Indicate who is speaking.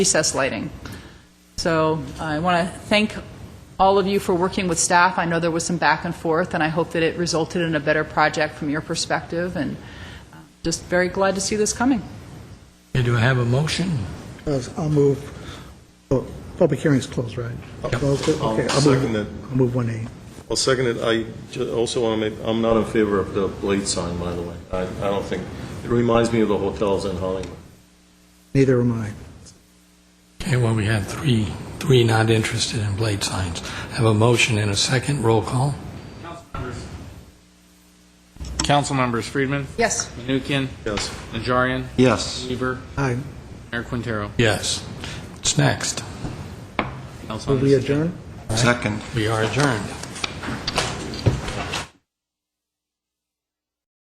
Speaker 1: recess lighting. So uh, I want to thank all of you for working with staff. I know there was some back and forth, and I hope that it resulted in a better project from your perspective, and uh, just very glad to see this coming.
Speaker 2: Okay, do I have a motion?
Speaker 3: Yes, I'll move, oh, public hearing's closed, right? Closed it?
Speaker 4: I'll
Speaker 3: Okay, I'll
Speaker 4: second
Speaker 3: move-
Speaker 4: it.
Speaker 3: I'll move 1A.
Speaker 4: Well, second it, I ju- also want to make, I'm not in favor of the blade sign, by the way. I, I don't think, it reminds me of the hotels in Hollywood.
Speaker 3: Neither am I.
Speaker 2: Okay, well, we have three, three not interested in blade signs. Have a motion and a second, roll call.
Speaker 5: Council members: Friedman,
Speaker 1: Yes.
Speaker 5: Menuchyan,
Speaker 4: Yes.
Speaker 5: Najarian,
Speaker 6: Yes.
Speaker 5: Weaver,
Speaker 3: Aye.
Speaker 5: Mayor Quintero.
Speaker 2: Yes. What's next?
Speaker 5: Council
Speaker 3: Will we
Speaker 5: members-
Speaker 3: adjourn?
Speaker 6: Second.
Speaker 2: We are adjourned.